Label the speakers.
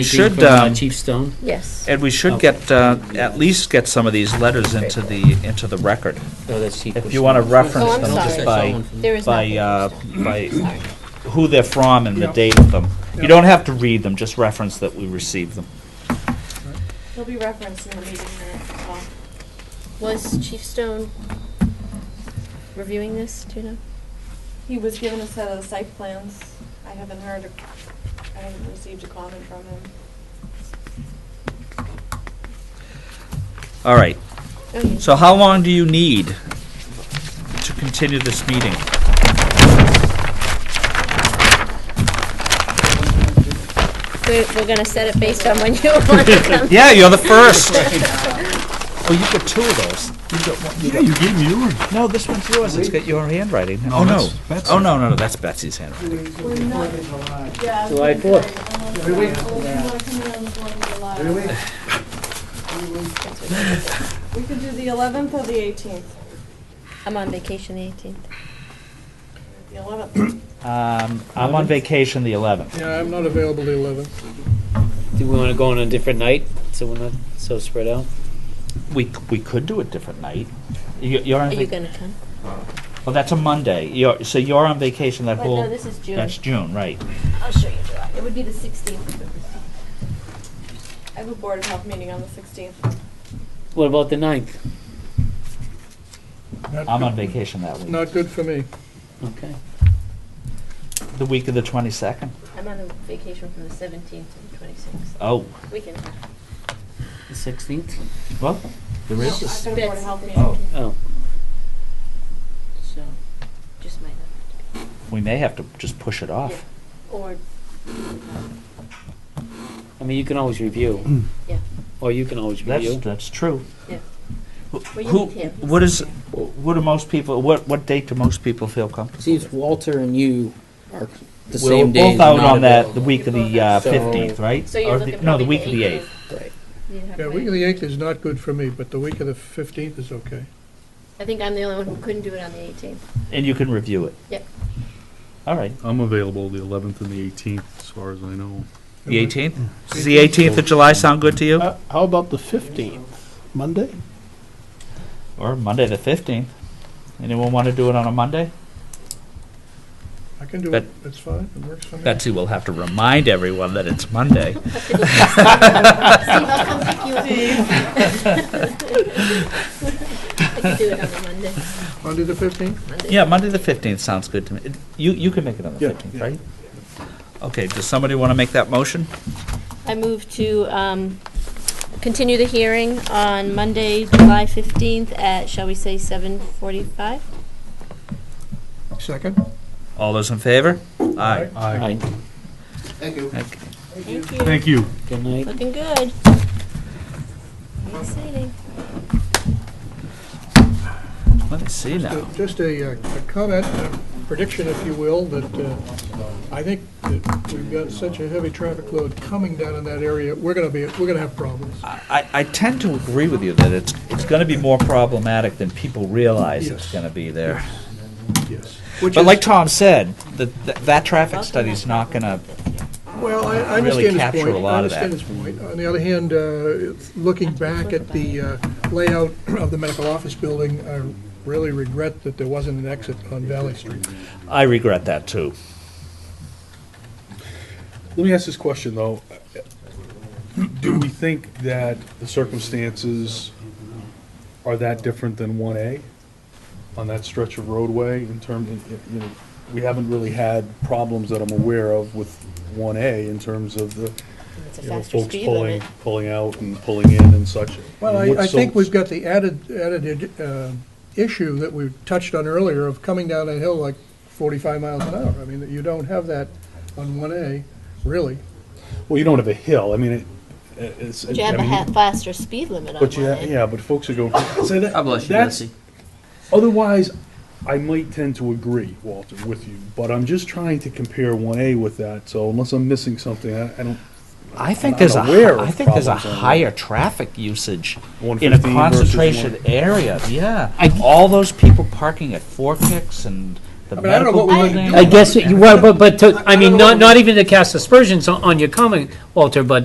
Speaker 1: Should,
Speaker 2: From, uh,
Speaker 1: um,
Speaker 2: Chief Stone?
Speaker 3: Yes.
Speaker 1: And we should get, uh, at least get some of these letters into the, into the record.
Speaker 2: No, Oh, that's Chief.
Speaker 1: If you want to reference
Speaker 3: Oh, I'm
Speaker 1: them just
Speaker 3: sorry.
Speaker 1: by,
Speaker 3: There is
Speaker 1: by, uh,
Speaker 3: nothing.
Speaker 1: by who they're from and the date of them. You don't have to read them, just reference that we received them.
Speaker 4: He'll be referenced in the meeting minutes as well.
Speaker 3: Was Chief Stone reviewing this, do you know?
Speaker 4: He was given a set of the site plans. I haven't heard, a- I haven't received a comment from him.
Speaker 1: All right,
Speaker 3: Oh, yeah.
Speaker 1: so how long do you need to continue this meeting?
Speaker 3: We're, we're gonna set it based on when you want to come.
Speaker 1: Yeah, you're the first. Oh, you've got two of those. You've got one,
Speaker 5: Yeah, you gave me yours.
Speaker 1: no, this one's yours, it's got your handwriting.
Speaker 5: No,
Speaker 1: Oh, no.
Speaker 5: that's Betsy's.
Speaker 1: Oh, no, no, no, that's Betsy's handwriting.
Speaker 4: Yeah.
Speaker 2: July fourth.
Speaker 4: Every week. Every week. We could do the eleventh or the eighteenth.
Speaker 3: I'm on vacation the eighteenth.
Speaker 4: The eleventh.
Speaker 1: Um, I'm on vacation the 11th.
Speaker 6: Yeah, I'm not available the 11th.
Speaker 2: Do we want to go on a different night, so we're not so spread out?
Speaker 1: We, c- we could do a different night. You- You're on,
Speaker 3: Are you
Speaker 1: vac-
Speaker 3: gonna come?
Speaker 1: well, that's a Monday. You're, so you're on vacation that
Speaker 3: But no,
Speaker 1: whole,
Speaker 3: this is June.
Speaker 1: that's June, right?
Speaker 3: I'll show you July. It would be the sixteenth.
Speaker 4: I have a board of health meeting on the sixteenth.
Speaker 2: What about the ninth?
Speaker 6: Not
Speaker 1: I'm
Speaker 6: good-
Speaker 1: on vacation that week.
Speaker 6: Not good for me.
Speaker 2: Okay.
Speaker 1: The week of the 22nd?
Speaker 3: I'm on a vacation from the seventeenth to the twenty-sixth.
Speaker 1: Oh,
Speaker 3: We can,
Speaker 2: The sixteenth?
Speaker 1: well, there is this.
Speaker 4: I've got a board of health
Speaker 1: Oh.
Speaker 4: meeting.
Speaker 2: Oh,
Speaker 3: so, just might not.
Speaker 1: We may have to just push it off.
Speaker 3: Or,
Speaker 2: I mean, you can always review.
Speaker 3: Yeah.
Speaker 2: Or you can always
Speaker 1: That's,
Speaker 2: review.
Speaker 1: that's true.
Speaker 3: Yeah.
Speaker 1: Who,
Speaker 3: Well, you
Speaker 1: who-
Speaker 3: need him.
Speaker 1: what is, what do most people, what, what date do most people feel comfortable?
Speaker 7: Seems Walter and you are the
Speaker 1: We're
Speaker 7: same day.
Speaker 1: both out on that, the week of the uh,
Speaker 7: So-
Speaker 1: 15th, right?
Speaker 3: so you're
Speaker 1: Or the-
Speaker 3: looking
Speaker 1: No, the
Speaker 3: probably
Speaker 1: week of the 8th.
Speaker 3: You'd have
Speaker 6: Yeah,
Speaker 3: to
Speaker 6: week of
Speaker 3: wait.
Speaker 6: the 8th is not good for me, but the week of the 15th is okay.
Speaker 3: I think I'm the only one who couldn't do it on the eighteenth.
Speaker 1: And you can review it?
Speaker 3: Yep.
Speaker 1: All right.
Speaker 5: I'm available the 11th and the 18th, as far as I know.
Speaker 1: The 18th? Does the 18th of July sound good to you?
Speaker 8: Uh, How about the 15th, Monday?
Speaker 1: Or Monday the 15th? Anyone want to do it on a Monday?
Speaker 6: I can do
Speaker 1: That-
Speaker 6: it, it's fine, it works for me.
Speaker 1: Betsy will have to remind everyone that it's Monday.
Speaker 3: Steve, I'll come pick you up. I could do it on a Monday.
Speaker 6: Monday the 15th?
Speaker 1: Yeah, Monday the 15th sounds good to me. It- You, you can make it on the
Speaker 6: Yeah,
Speaker 1: 15th,
Speaker 6: yeah.
Speaker 1: right? Okay, does somebody want to make that motion?
Speaker 3: I move to um, continue the hearing on Monday, July 15th at, shall we say, 7:45?
Speaker 6: Second?
Speaker 1: All those in favor? Aye.
Speaker 2: Aye.
Speaker 1: Okay.
Speaker 3: Thank you.
Speaker 5: Thank you.
Speaker 2: Good night.
Speaker 3: Looking good. Exciting.
Speaker 1: Let me see now.
Speaker 6: Just a, uh, a comment, a prediction, if you will, that uh, I think that we've got such a heavy traffic load coming down in that area, we're gonna be, we're gonna have problems.
Speaker 1: I, I tend to agree with you that it's, it's going to be more problematic than people realize it's
Speaker 6: Yes.
Speaker 1: going to be there.
Speaker 6: Yes. Which
Speaker 1: But
Speaker 6: is,
Speaker 1: like Tom said, that, that- that traffic study's not going to
Speaker 6: well, I I
Speaker 1: really
Speaker 6: understand his
Speaker 1: capture a
Speaker 6: point, I
Speaker 1: lot of
Speaker 6: understand his point. On the other hand, uh, it's- looking back at the uh, layout of the medical office building, I really regret that there wasn't an exit on Valley Street.
Speaker 1: I regret that too.
Speaker 5: Let me ask this question, though. Do we think that the circumstances are that different than 1A on that stretch of roadway in terms, you know, we haven't really had problems that I'm aware of with 1A in terms of the,
Speaker 3: It's a
Speaker 5: you know,
Speaker 3: faster
Speaker 5: folks
Speaker 3: speed
Speaker 5: pulling,
Speaker 3: limit.
Speaker 5: pulling out and pulling in and such.
Speaker 6: Well,
Speaker 5: What's
Speaker 6: I, I
Speaker 5: so-
Speaker 6: think we've got the added, added uh, issue that we touched on earlier of coming down a hill like 45 miles an hour. I mean, you don't have that on 1A, really.
Speaker 5: Well, you don't have a hill, I mean, it, it's.
Speaker 3: But you have
Speaker 5: I
Speaker 3: a
Speaker 5: mean,
Speaker 3: ha- faster speed limit on
Speaker 5: But you,
Speaker 3: Monday.
Speaker 5: ha- yeah, but folks are going, so that,
Speaker 7: God bless you,
Speaker 5: that's,
Speaker 7: Betsy.
Speaker 5: otherwise, I might tend to agree, Walter, with you, but I'm just trying to compare one A with that, so unless I'm missing something, I, I don't,
Speaker 1: I think
Speaker 5: I'm
Speaker 1: there's a,
Speaker 5: aware
Speaker 1: hi- I
Speaker 5: of
Speaker 1: think there's a
Speaker 5: problems on the-
Speaker 1: higher traffic usage in a
Speaker 5: 115 versus
Speaker 1: concentration area, yeah. All those people parking at Four Kicks and the
Speaker 6: mean, I don't
Speaker 1: medical
Speaker 6: know what we would
Speaker 1: building.
Speaker 6: do
Speaker 2: I guess, you- well, but, but, to- I mean,
Speaker 6: don't know.
Speaker 2: not, not even to cast aspersions on on your comment, Walter, but